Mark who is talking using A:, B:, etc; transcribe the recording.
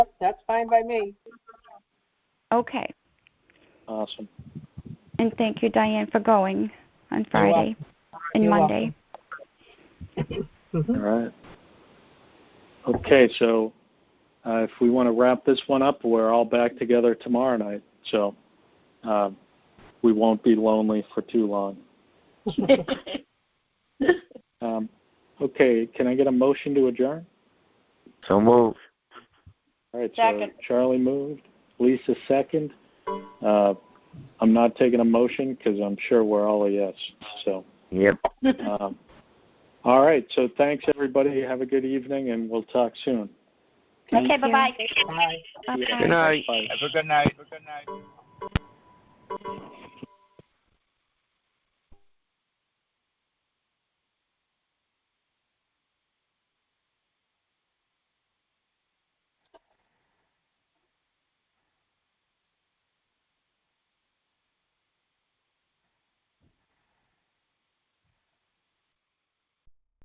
A: That's fine by me.
B: Okay.
C: Awesome.
B: And thank you, Diane, for going on Friday and
A: You're
B: Monday.
C: All right. Okay, so uh, if we want to wrap this one up, we're all back together tomorrow night. So um, we won't be lonely for too long. Um, okay, can I get a motion to adjourn?
D: So move.
C: All right,
E: Second.
C: so Charlie moved, Lisa second. Uh, I'm not taking a motion because I'm sure we're all a yes. So,
D: Yep.
C: um, all right, so thanks everybody. Have a good evening, and we'll talk soon.
B: Thank
E: Okay,
B: you.
E: bye-bye.
A: Bye.
B: Bye-bye.
D: Good night.
C: Bye.
F: Have a good night. Good night.